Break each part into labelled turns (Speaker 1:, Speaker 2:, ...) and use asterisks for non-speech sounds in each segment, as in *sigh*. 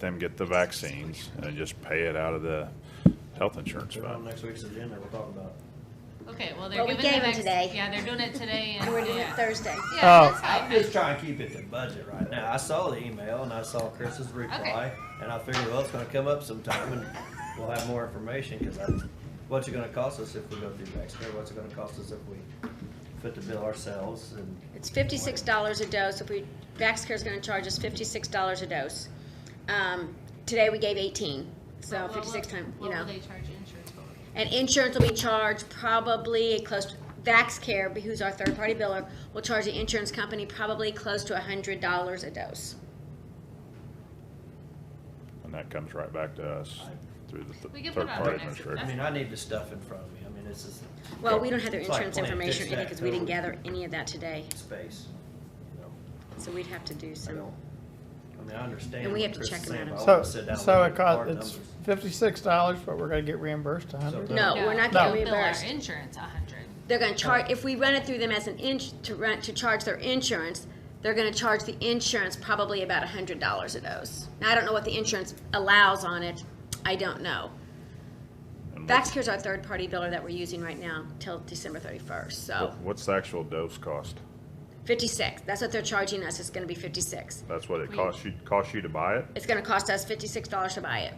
Speaker 1: them get the vaccines and just pay it out of the health insurance
Speaker 2: They're on
Speaker 1: fund.
Speaker 2: next week's agenda, we'll talk about it.
Speaker 3: Okay, well, they're
Speaker 4: Well, we
Speaker 3: giving the
Speaker 4: gave 'em
Speaker 3: next,
Speaker 4: today.
Speaker 3: yeah, they're doing it today and,
Speaker 4: *laughs* We're doing it
Speaker 3: yeah.
Speaker 4: Thursday.
Speaker 3: Yeah,
Speaker 5: Oh.
Speaker 3: that's
Speaker 2: I'm
Speaker 3: fine.
Speaker 2: just trying to keep it to budget right now. I saw the email and I saw Chris's reply, and I figured, well, it's gonna come up sometime and we'll have more information, cause I, what's it gonna cost us if we go through next year? What's it gonna cost us if we put the bill ourselves and?
Speaker 4: It's fifty-six dollars a dose. If we, Vaxcare's gonna charge us fifty-six dollars a dose. Um, today we gave eighteen,
Speaker 3: Well,
Speaker 4: so
Speaker 3: what-
Speaker 4: fifty-six time, you know.
Speaker 3: What will they charge insurance for?
Speaker 4: And insurance will be charged probably close to, Vaxcare, who's our third-party biller, will charge the insurance company probably close to a hundred dollars a dose.
Speaker 1: And that comes right back to us through the
Speaker 3: We
Speaker 1: th-
Speaker 3: can put
Speaker 1: third
Speaker 3: it on
Speaker 1: party
Speaker 3: the next-
Speaker 1: administrator.
Speaker 2: I mean, I need the stuff in front of me. I mean, this is
Speaker 4: Well, we don't have their
Speaker 2: It's like
Speaker 4: insurance
Speaker 2: playing
Speaker 4: information in it
Speaker 2: tic-tac-toe.
Speaker 4: because we didn't gather any of that today,
Speaker 2: space, you know,
Speaker 4: so we'd have to do
Speaker 2: I
Speaker 4: some.
Speaker 2: don't, I mean, I understand.
Speaker 4: And we
Speaker 2: what
Speaker 4: have to
Speaker 2: Chris
Speaker 4: check
Speaker 2: is
Speaker 4: 'em
Speaker 2: saying,
Speaker 4: out.
Speaker 2: but I
Speaker 5: So,
Speaker 2: wanna sit down and
Speaker 5: so
Speaker 2: look at
Speaker 5: it
Speaker 2: hard
Speaker 5: costs, it's
Speaker 2: numbers.
Speaker 5: fifty-six dollars, but we're gonna get reimbursed a hundred.
Speaker 2: So-
Speaker 4: No, we're not
Speaker 5: No.
Speaker 4: gonna
Speaker 3: They'll bill our
Speaker 4: reimburse.
Speaker 3: insurance a hundred.
Speaker 4: They're gonna charge, if we run it through them as an ins, to rent, to charge their insurance, they're gonna charge the insurance probably about a hundred dollars a dose. Now, I don't know what the insurance allows on it, I don't know.
Speaker 1: And what's-
Speaker 4: Vaxcare's our third-party biller that we're using right now till December thirty-first, so
Speaker 1: what- What's the actual dose cost?
Speaker 4: fifty-six, that's what they're charging us, it's gonna be fifty-six.
Speaker 1: That's what it
Speaker 3: We-
Speaker 1: costs you, costs you to buy it?
Speaker 4: It's gonna cost us fifty-six dollars to buy it.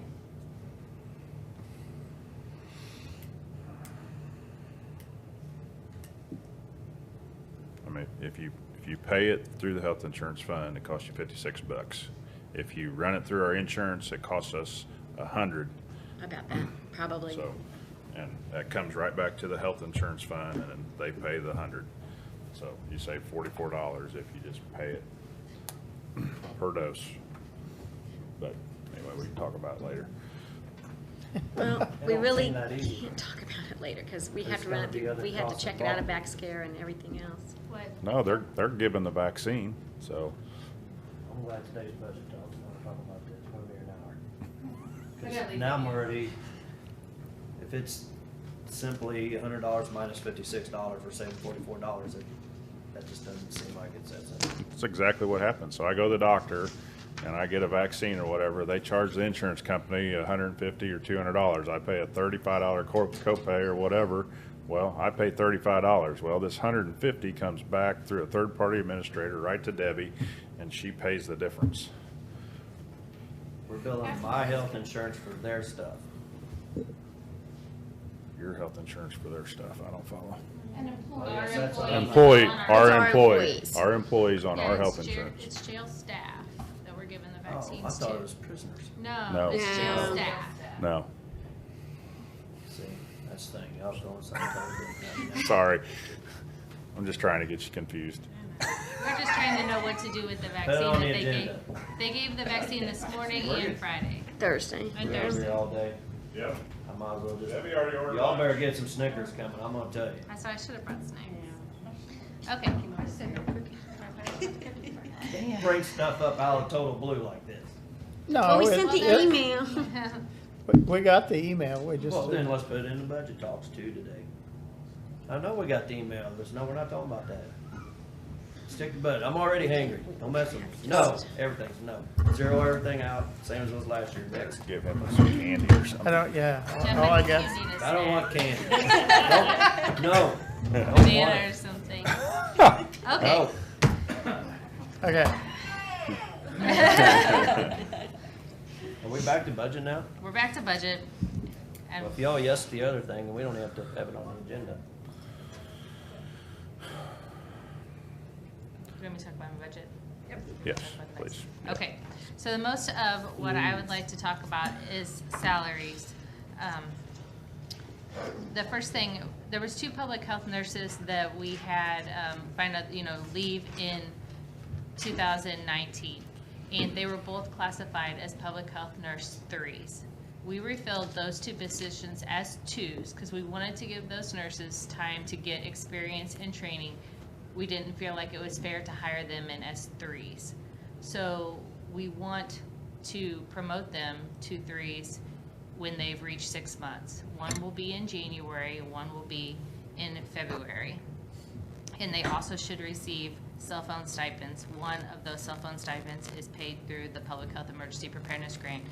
Speaker 1: I mean, if you, if you pay it through the health insurance fund, it costs you fifty-six bucks. If you run it through our insurance, it costs us a hundred,
Speaker 2: *clears throat*
Speaker 4: About that, probably.
Speaker 1: so, and that comes right back to the health insurance fund, and then they pay the hundred. So you save forty-four dollars if you just pay it per dose. But anyway, we can talk about it later.
Speaker 4: Well, we
Speaker 2: don't
Speaker 4: really
Speaker 2: seem that easy.
Speaker 4: can't talk about it later, cause we have
Speaker 2: There's
Speaker 4: to run
Speaker 2: gotta
Speaker 4: it
Speaker 2: be
Speaker 4: through,
Speaker 2: other
Speaker 4: we have to
Speaker 2: costs
Speaker 4: check it out of
Speaker 2: involved.
Speaker 4: Vaxcare and everything else.
Speaker 3: What?
Speaker 1: No, they're, they're giving the vaccine, so
Speaker 2: I'm glad today's budget talk, I wanna talk about this, we'll be here an
Speaker 3: I
Speaker 2: hour.
Speaker 3: gotta
Speaker 2: 'Cause
Speaker 3: leave.
Speaker 2: Now I'm already, if it's simply a hundred dollars minus fifty-six dollars, we're saving forty-four dollars, it, that just doesn't seem like it's that simple.
Speaker 1: That's exactly what happened. So I go to the doctor and I get a vaccine or whatever. They charge the insurance company hundred and fifty or two hundred dollars. I pay a thirty-five dollar co- copay or whatever. Well, I pay thirty-five dollars. Well, this hundred and fifty comes back through a third-party administrator right to Debbie and she pays the difference.
Speaker 2: We're billing my health insurance for their stuff.
Speaker 1: Your health insurance for their stuff. I don't follow.
Speaker 3: An employee.
Speaker 2: yes, that's-
Speaker 1: Employee,
Speaker 4: It's
Speaker 1: our
Speaker 4: our
Speaker 1: employee,
Speaker 4: employees.
Speaker 1: our employees on
Speaker 3: Yeah,
Speaker 1: our
Speaker 3: it's
Speaker 1: health
Speaker 3: jail-
Speaker 1: insurance.
Speaker 3: It's jail staff that we're giving the
Speaker 2: Oh, I
Speaker 3: vaccines
Speaker 2: thought it
Speaker 3: to.
Speaker 2: was prisoners.
Speaker 1: No.
Speaker 3: No, it's jail
Speaker 4: No.
Speaker 3: staff.
Speaker 1: No,
Speaker 2: See, that's the thing, I was going somewhere totally
Speaker 1: *laughs*
Speaker 2: different.
Speaker 1: sorry. I'm just trying to get you confused.
Speaker 3: We're just trying to know what to do with the
Speaker 2: Put it
Speaker 3: vaccine
Speaker 2: on
Speaker 3: that
Speaker 2: the
Speaker 3: they gave.
Speaker 2: agenda.
Speaker 3: They gave the vaccine this morning
Speaker 2: We're
Speaker 3: and
Speaker 2: good.
Speaker 3: Friday.
Speaker 4: Thursday.
Speaker 3: And
Speaker 2: We're
Speaker 3: Thursday.
Speaker 2: here all day,
Speaker 1: Yep.
Speaker 2: I might as well just,
Speaker 1: Debbie already ordered
Speaker 2: y'all
Speaker 1: lunch.
Speaker 2: better get some Snickers coming, I'm gonna tell you.
Speaker 3: I saw I should have brought snacks. Okay. *laughs*
Speaker 2: Bring stuff up out of total blue like this.
Speaker 4: Well,
Speaker 5: No,
Speaker 4: we
Speaker 5: it-
Speaker 4: sent the
Speaker 5: it-
Speaker 4: email.
Speaker 3: *laughs*
Speaker 5: we- We got the email, we just,
Speaker 2: Well, then let's put it in the budget talks too today. I know we got the email, but no, we're not talking about that. Stick to budget, I'm already hangry, don't mess with me. No, everything's no, zero everything out, same as it was last year, next.
Speaker 1: Give him some candy or something.
Speaker 5: I don't, yeah, all I
Speaker 3: Definitely you
Speaker 5: got,
Speaker 3: need a
Speaker 2: I don't want
Speaker 3: snack.
Speaker 2: candy. *laughs* Don't- No, don't want
Speaker 3: Banana or
Speaker 2: it.
Speaker 3: something.
Speaker 2: No,
Speaker 3: Okay.
Speaker 5: okay.
Speaker 1: *laughs*
Speaker 2: are we back to budget now?
Speaker 3: We're back to budget. And
Speaker 2: Well, if y'all yes the other thing, then we don't have to have it on the agenda.
Speaker 3: Do you want me to talk about my budget?
Speaker 1: Yes,
Speaker 3: Talk about the
Speaker 1: please.
Speaker 3: budget. Okay, so the most of what I would like to talk about is salaries. Um, The first thing, there was two public health nurses that we had, um, find out, you know, leave in 2019. And they were both classified as public health nurse threes. We refilled those two positions as twos because we wanted to give those nurses time to get experience and training. We didn't feel like it was fair to hire them in as threes. So we want to promote them to threes when they've reached six months. One will be in January, one will be in February. And they also should receive cell phone stipends. One of those cell phone stipends is paid through the Public Health Emergency Preparedness Grant